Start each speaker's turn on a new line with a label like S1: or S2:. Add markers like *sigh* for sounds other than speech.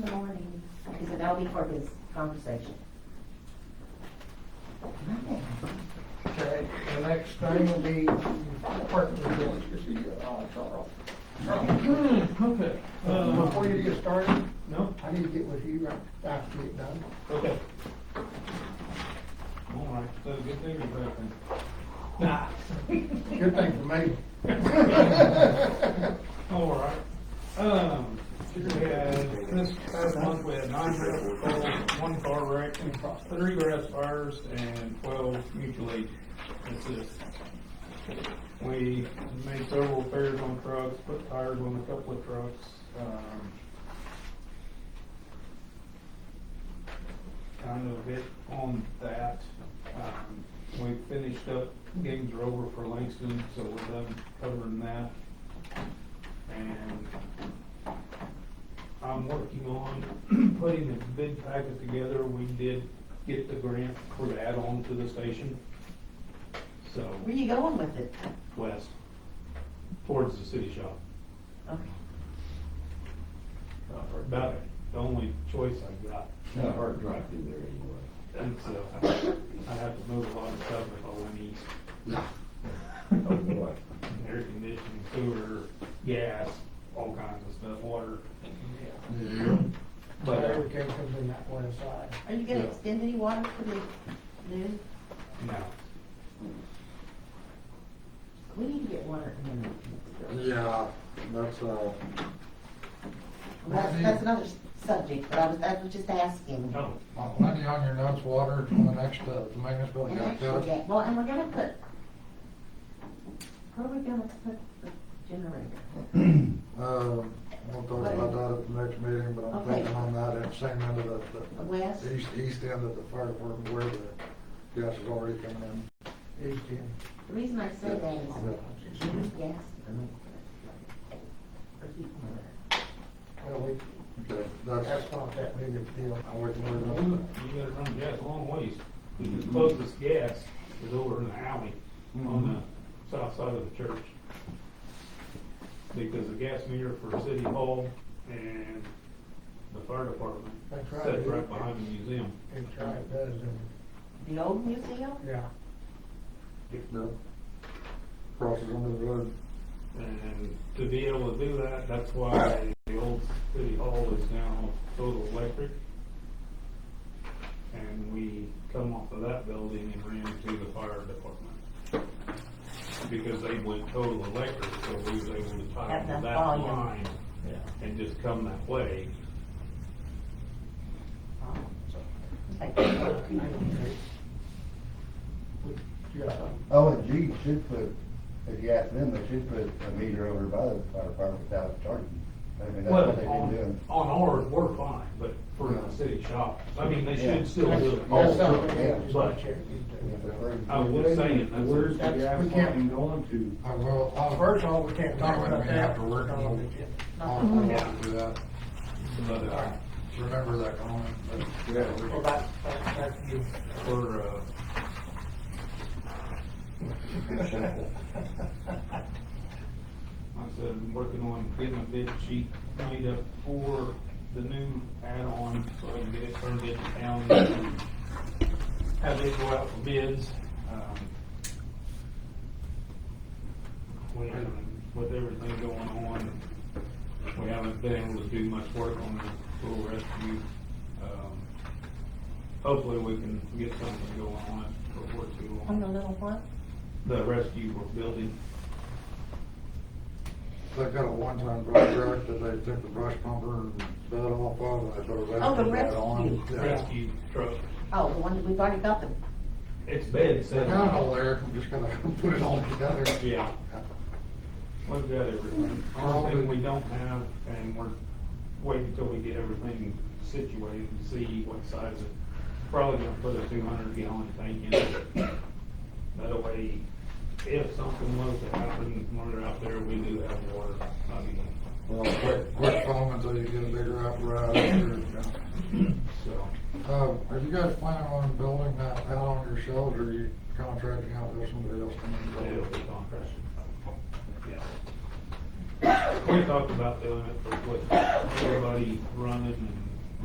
S1: that'll be for his conversation.
S2: Okay, the next thing will be department reports, you see, uh, Charles. Charles,
S3: Okay,
S2: Before you get started,
S3: Uh, no,
S2: I need to get with you right after you get done.
S3: okay. All right, so good thing you're back then. Nah.
S2: Good thing for me.
S3: All right. Um, we had, this past month, we had nine vehicle calls, one car wreck, three grass fires, and twelve mutual aid assists. We made several repairs on trucks, put tires on a couple of trucks, um. Kind of it on that. Um, we finished up, games are over for Langston, so we're done covering that. And I'm working on *clears throat* putting a bid packet together. We did get the grant for the add-on to the station. So,
S1: Where you going with it?
S3: west, towards the city shop.
S1: Okay.
S3: Uh, About the only choice I've got.
S4: Not hard drive through there anyway.
S3: And so I have to move a lot of stuff if I went east.
S4: Oh, boy.
S3: Air conditioning, sewer, gas, all kinds of stuff, water.
S2: But
S3: But uh,
S2: everything comes in that one side.
S1: Are you gonna
S3: Yeah.
S1: extend any water for the new?
S3: no,
S1: We need to get water in there.
S5: Yeah, that's, uh,
S1: That's, that's another s- subject, but I was, I was just asking.
S3: no.
S6: Plenty on your notes, water, to the next, uh, the maintenance building,
S1: And
S6: got
S1: actually,
S6: that?
S1: yeah, well, and we're gonna put, where are we gonna put the generator?
S6: Um, we'll talk about that at the next meeting, but I'm
S1: Okay.
S6: thinking on that, at the same end of
S1: The
S6: the,
S1: West?
S6: the east, east end of the fire department where the gas is already coming in.
S2: East end.
S1: The reason I say that is, she was gas to the main. For heat and water.
S2: Well, we,
S6: Okay, that's,
S2: that's not that big of a deal.
S6: I wouldn't worry about
S3: You
S6: that.
S3: gotta run gas a long ways. The closest gas is over in the alley on the south side of the church. Because the gas meter for City Hall and the fire department
S2: That's right.
S3: sits right behind the museum.
S2: It try it does, and,
S1: The old museum?
S2: yeah.
S6: No. Crosses under the road.
S3: And to be able to do that, that's why the old City Hall is now total electric. And we come off of that building and ran to the fire department. Because they went total electric, so we was able to tie
S1: Have
S3: into
S1: that
S3: that
S1: volume.
S3: line and just come that way.
S2: Um,
S1: Like,
S2: Yeah,
S4: Oh, and G should put, if you ask them, they should put a meter over by the fire department without charging. I mean, that's
S3: Well, um,
S4: what they've been
S3: on,
S4: doing.
S3: on ours, we're fine, but for the city shop, I mean, they
S4: Yeah.
S3: should still do it.
S4: Oh,
S2: that's something
S4: yeah,
S2: we just
S3: but-
S2: check into.
S3: I was saying, that's-
S4: Where's the
S2: that's-
S4: gas
S2: we can't-
S4: line going to?
S6: I will,
S2: Well,
S6: I'll,
S2: First of all, we can't talk about that.
S6: After work.
S2: No, we can't.
S6: I'll, I'll do that,
S3: But, uh,
S6: remember that comment, but.
S4: Yeah.
S2: Well, that, that, that's you.
S3: for, uh,
S4: *laughs*
S3: Like I said, I'm working on getting a bid sheet made up for the new add-on, so I can get it turned into town. and Have it go out for bids. um, We haven't, with everything going on, we haven't been able to do much work on the pool rescue. Um, Hopefully, we can get something going on it before too
S1: On the
S3: long.
S1: little what?
S3: The rescue building.
S6: They've got a one-time brush truck that they took the brush pumper and bed off of, and they put a rescue
S1: Oh, the
S6: mat on.
S1: rescue.
S6: Yeah.
S3: rescue truck.
S1: Oh, the one that we've already got the,
S3: It's bed
S6: They're
S3: set
S6: not
S3: up.
S6: all there, I'm just gonna *laughs* put it all together.
S3: Yeah. We've got everything. Only thing we don't have, and we're waiting until we get everything situated and see what size it. Probably gonna put a two hundred gallon tank in it. That way, if something was to happen when we're out there, we do have water. I mean,
S6: Well, quick, quick phone until you get a bigger apparatus.
S3: so.
S6: Um, are you guys planning on building that out on yourselves, or are you contracting out with somebody else? to build
S3: It'll
S6: it?
S3: be compression. Yeah. We talked about doing it, but with everybody running